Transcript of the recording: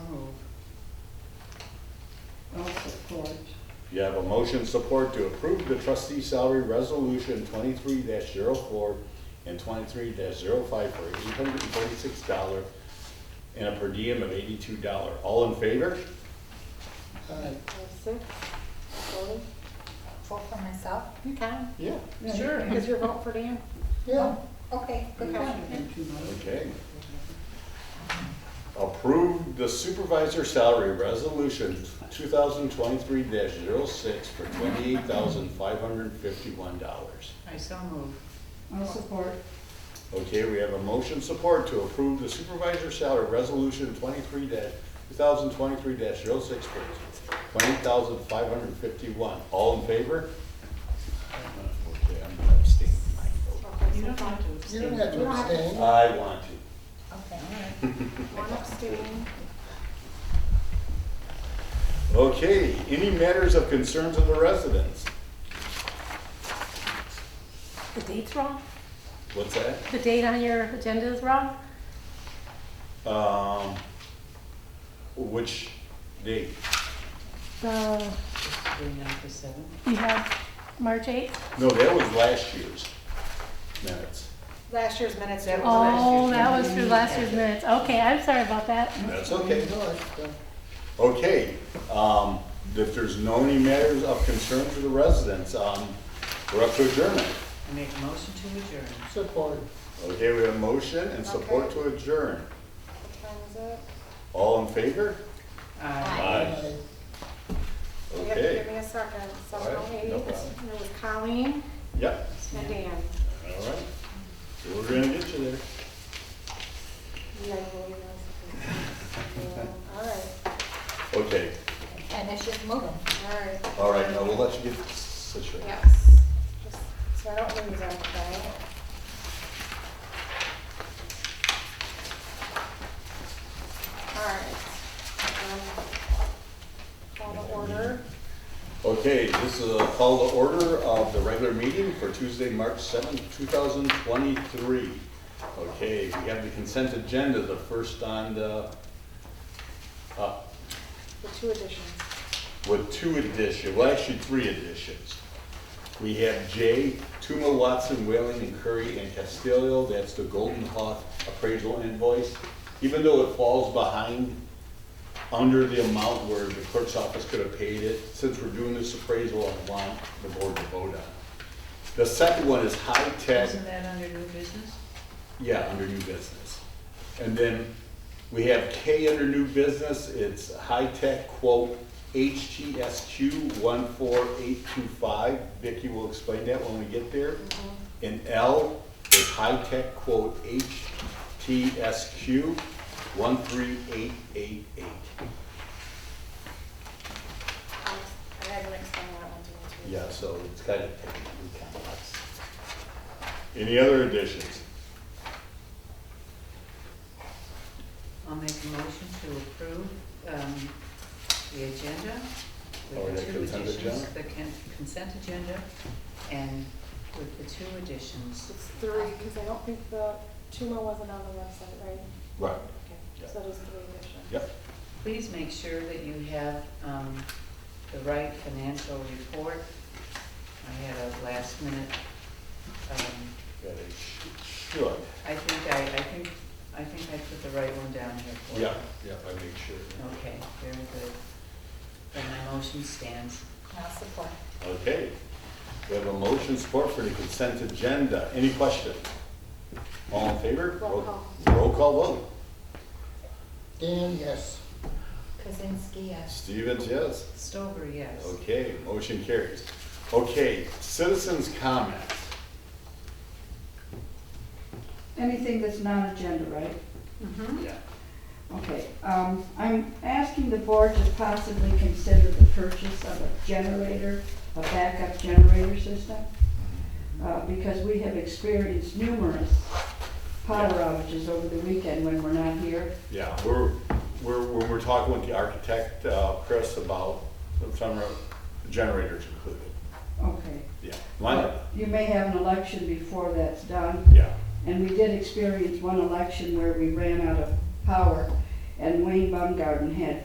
Support. You have a motion support to approve the trustee salary resolution twenty-three 4 and twenty-three 5 for eight hundred and forty-six dollar and a per diem of eighty-two dollar. All in favor? Aye. Six, voting? Four for myself? Okay. Yeah. Sure. Because you're voting for Dan? Yeah. Okay, good one. Okay. Approve the supervisor salary resolution two thousand twenty-three 6 for twenty-eight thousand five hundred and fifty-one dollars. I so move. I'll support. Okay, we have a motion support to approve the supervisor salary resolution twenty-three two thousand twenty-three 6 for twenty thousand five hundred and fifty-one. All in favor? Okay, I'm gonna abstain my vote. Okay, You so don't fine. have to You abstain. don't have to You don't have to- abstain. I want to. Okay. One abstaining. Okay, any matters of concerns of the residents? The date's wrong. What's that? The date on your agenda is wrong. Um, which date? So Bring it up to seven. you have March 8th? No, that was last year's minutes. Last year's minutes. That was last year's Oh, that was through minutes. last year's minutes. Okay, I'm sorry about that. That's okay. No, it's done. Okay, um, if there's no any matters of concern to the residents, um, we're up to adjournment. I make a motion to adjourn. Support. Okay, we have a motion and support to adjourn. What time is it? All in favor? Aye. Aye. You have to give Okay, me a second. All right, Seven oh no eight. problem. It was Colleen yep, and Dan. all right. We're gonna get you there. Yeah, well, you know, All right, Okay, and it's just moving. All right. all right, now we'll let you get situated. Yes. Just So I don't lose anything. All right. Um, Call the order. Okay, this is a call to order of the regular meeting for Tuesday, March seventh, two 2023. Okay, we have the consent agenda, the first on the, uh, The two additions. with two additions, well, actually, three additions. We have J, Tuma, Watson, Whaling, and Curry, and Castillo, that's the Golden Hawk appraisal invoice. Even though it falls behind under the amount where the clerk's office could have paid it, since we're doing this appraisal, I want the board to vote on. it. The second one is High Tech Isn't that under new business? yeah, under new business. And then we have K under new business, it's high-tech quote HTSQ one four eight two five. Vicky will explain that when we get there. And L is high-tech quote HTSQ one three eight eight eight. Um, I had to explain that one to you too. Yeah, so it's kind of technically complex. Any other additions? I'll make a motion to approve um, the agenda Or with the two the Oh, consent additions. agenda? The con- consent agenda and with the two additions. It's three, because I don't think the Tuma wasn't on the website, right? Right. Yeah. Okay, so there's three additions. Yep, Please make sure that you have um, the right financial report. I had a last minute um, that is, should. I think I, I think, I think I put the right one down here for you. Yeah, yeah, I make sure. Okay, very good. Then my motion stands. Now support. Okay, we have a motion support for the consent agenda. Any question? All in favor? Roll call. Roll call vote. Dan, yes. Kazinsky, yes. Stevens, yes. Stover, yes. Okay, motion carries. Okay, citizens' comments. Anything that's non-agenda, right? Yeah. Okay, um, I'm asking the board to possibly consider the purchase of a generator, a backup generator system, uh, because we have experienced numerous power outages over the weekend when we're not here. Yeah, we're, we're, when we're talking with the architect, uh, Chris, about some of the generators included. Okay. Yeah, line up. You may have an election before that's done, Yeah, And we did experience one election where we ran out of power, and Wayne Baumgarten had